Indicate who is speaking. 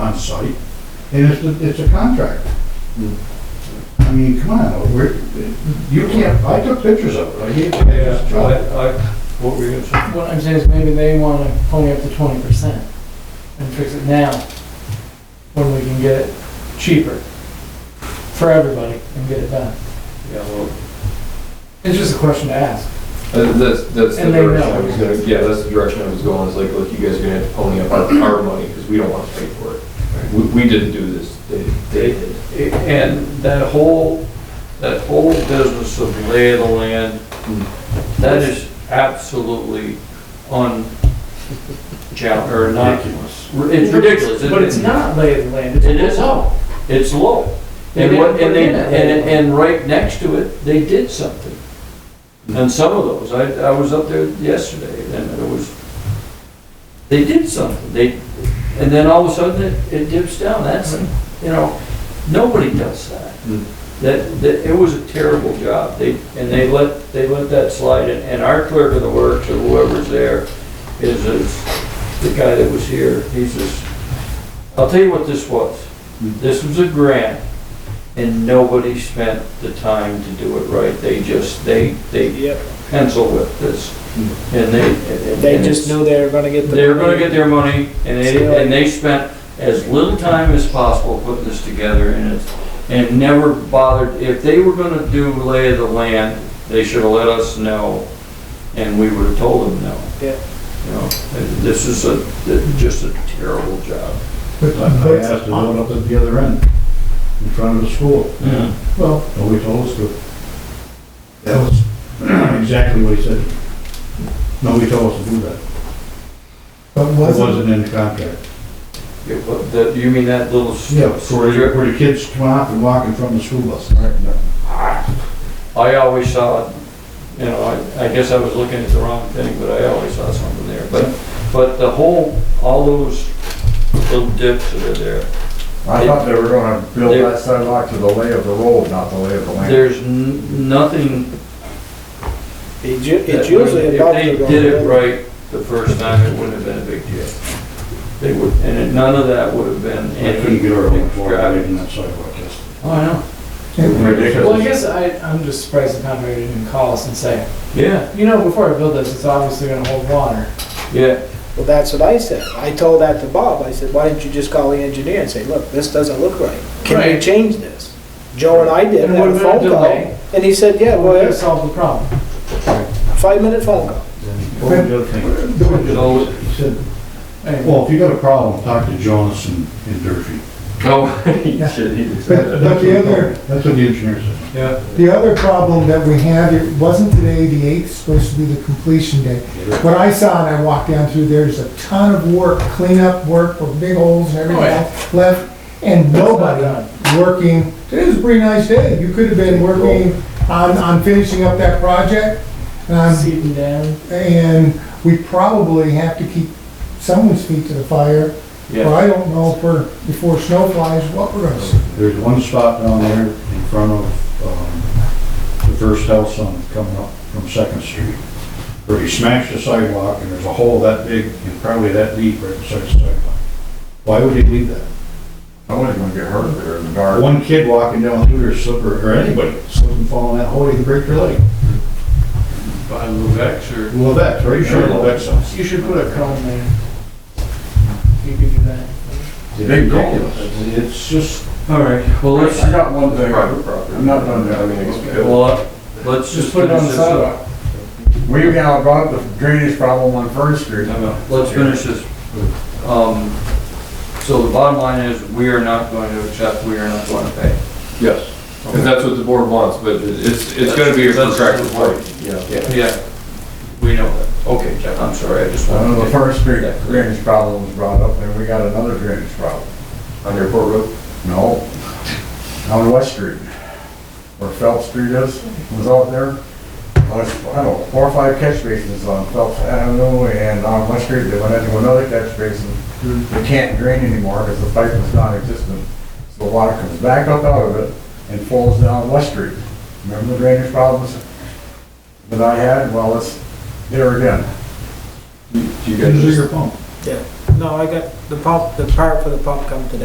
Speaker 1: on site, and it's, a- it's a contractor. I mean, come on, we're, you can't, I took pictures of it, I gave it
Speaker 2: Yeah,
Speaker 1: to John.
Speaker 2: I, I, what were you gonna say?
Speaker 3: What I'm saying is maybe they want to pony up to twenty percent and fix it now, when we can get it cheaper for everybody and get it done.
Speaker 2: Yeah, well,
Speaker 3: It's just a question to ask.
Speaker 4: Uh, That's, that's the
Speaker 3: And they
Speaker 4: direction
Speaker 3: know.
Speaker 4: I was gonna, yeah, that's the direction I was going, is like, look, you guys are gonna have to pony up our, our money, because we don't wanna pay for it. We, we didn't do this, they, they did.
Speaker 2: and that whole, that whole business of lay of the land,
Speaker 4: Hmm.
Speaker 2: that is absolutely un, ja- or not,
Speaker 1: Ridiculous.
Speaker 2: it's ridiculous.
Speaker 3: But it's not lay of the land. it's
Speaker 2: It is
Speaker 3: low.
Speaker 2: low, it's low.
Speaker 3: They
Speaker 2: And what, and
Speaker 3: didn't put it
Speaker 2: they,
Speaker 3: in at
Speaker 2: and,
Speaker 3: low.
Speaker 2: and right next to it, they did something. And some of those, I, I was up there yesterday and it was, they did something, they, and then all of a sudden it, it dips down, that's, you know, nobody does that.
Speaker 4: Mm.
Speaker 2: That, that, it was a terrible job, they, and they let, they let that slide and, and our clerk of the works or whoever's there is, is the guy that was here, he's just, I'll tell you what this was. This was a grant, and nobody spent the time to do it right. They just, they, they
Speaker 5: Yep,
Speaker 2: pencil whipped this, and they. and-
Speaker 5: they
Speaker 2: and
Speaker 5: just knew they were gonna get the.
Speaker 2: They were gonna get their money, and
Speaker 5: So-
Speaker 2: they, and they spent as little time as possible putting this together, and it's, and never bothered, if they were gonna do lay of the land, they should have let us know, and we would have told them no.
Speaker 5: Yeah.
Speaker 2: You know, this is a, just a terrible job.
Speaker 1: I asked to do it up at the other end, in front of the school. Well, nobody told us to. That was exactly what he said. Nobody told us to do that.
Speaker 6: But
Speaker 1: It
Speaker 6: wasn't,
Speaker 1: wasn't in the contract.
Speaker 2: Yeah, but that- you mean that little? s-
Speaker 1: Yeah, where, the-
Speaker 2: strip?
Speaker 1: where the kids come out and walk in front of the school bus.
Speaker 2: I always saw, it, you know, I, I guess I was looking at the wrong thing, but I always saw something there. But, but the whole, all those little dips that are there,
Speaker 7: I thought they were gonna build that sidewalk to the lay of the road, not the lay of the land.
Speaker 2: there's n- nothing.
Speaker 5: It's u-
Speaker 2: that
Speaker 5: it's usually
Speaker 2: wouldn't-
Speaker 5: about.
Speaker 2: If they did it right the first time, it wouldn't have been a big deal. They would, and it- none of that would have been
Speaker 1: I
Speaker 2: any.
Speaker 1: couldn't get over it before I
Speaker 2: driving.
Speaker 1: in that sidewalk test.
Speaker 2: Oh, I know,
Speaker 3: Well, I
Speaker 4: Ridiculous.
Speaker 3: guess I, I'm just surprised the contractor didn't call us and say,
Speaker 2: yeah,
Speaker 3: you know, before I build this, it's obviously gonna hold water.
Speaker 2: yeah,
Speaker 5: Well, that's what I said. I told that to Bob. I said, why didn't you just call the engineer and say, look, this doesn't look right. Can
Speaker 3: Right.
Speaker 5: you change this? Joe and I did,
Speaker 3: And
Speaker 5: had a
Speaker 3: what about
Speaker 5: phone call.
Speaker 3: delay?
Speaker 5: And he said, yeah,
Speaker 3: That would
Speaker 5: well,
Speaker 3: have solved the problem.
Speaker 5: five minute phone call.
Speaker 1: What was the other thing?
Speaker 2: so,
Speaker 1: He said,
Speaker 3: Anyway,
Speaker 1: well, if you got a problem, talk to Jonas and, and Durfee.
Speaker 4: Oh, he should, he did say
Speaker 6: but
Speaker 4: that.
Speaker 6: but the other,
Speaker 1: That's what the engineer said.
Speaker 2: yeah.
Speaker 6: the other problem that we had, it wasn't today, the eighth, supposed to be the completion day. What I saw and I walked down through, there's a ton of work, cleanup work, with big holes and everything
Speaker 3: Oh, yeah.
Speaker 6: else left, and
Speaker 3: That's not
Speaker 6: nobody
Speaker 3: done.
Speaker 6: working. Today was a pretty nice day, you could have been working on, on finishing up that project. Um,
Speaker 3: seeping down.
Speaker 6: And we probably have to keep someone's feet to the fire.
Speaker 2: Yeah.
Speaker 6: Or I don't know if we're, before snow flies, what we're gonna see.
Speaker 1: There's one spot down there in front of, um, the first house on, coming up from Second Street, where he smashed the sidewalk, and there's a hole that big and probably that deep right beside the sidewalk. Why would he leave that?
Speaker 7: Nobody's gonna get hurt there in the dark.
Speaker 1: One kid walking down through their slipper, or anybody, slip and fall in that hole, he can break their leg.
Speaker 2: By Lubex or?
Speaker 1: Levex, are you sure Levex house?
Speaker 3: You should put a cone there. You could do that.
Speaker 1: Ridiculous. It's just,
Speaker 2: All right, well, let's,
Speaker 7: I got one thing.
Speaker 4: Private property.
Speaker 7: I'm not done yet.
Speaker 4: I mean, it's-
Speaker 2: well, let's just.
Speaker 3: Just put it on the
Speaker 2: finish this up.
Speaker 3: sidewalk.
Speaker 7: We, you know, brought up the drainage problem on First Street.
Speaker 2: No, no, Let's finish this. Um, so the bottom line is, we are not going to accept, we are not going to pay.
Speaker 4: Yes, because that's what the board wants, but it- it's, it's gonna be a
Speaker 2: That's-
Speaker 4: contractual
Speaker 2: that's-
Speaker 4: right. Yeah.
Speaker 2: Yeah, we know that. Okay, Jeff, I'm sorry, I just
Speaker 7: I know
Speaker 2: wanted
Speaker 7: the
Speaker 2: to.
Speaker 7: First Street drainage problem was brought up, and we got another drainage problem.
Speaker 4: On Airport Road,
Speaker 7: No, on West Street, where Phelps Street is, was out there. There's, I don't know, four or five catch basins on Phelps Avenue and on West Street, they went into another catch basin. They can't drain anymore because the pipe was non-existent. So the water comes back up out of it and falls down West Street. Remember the drainage problems that I had? Well, it's there again.
Speaker 4: do you guys?
Speaker 1: it's your pump.
Speaker 5: No, I got the pump, the part for the pump come today.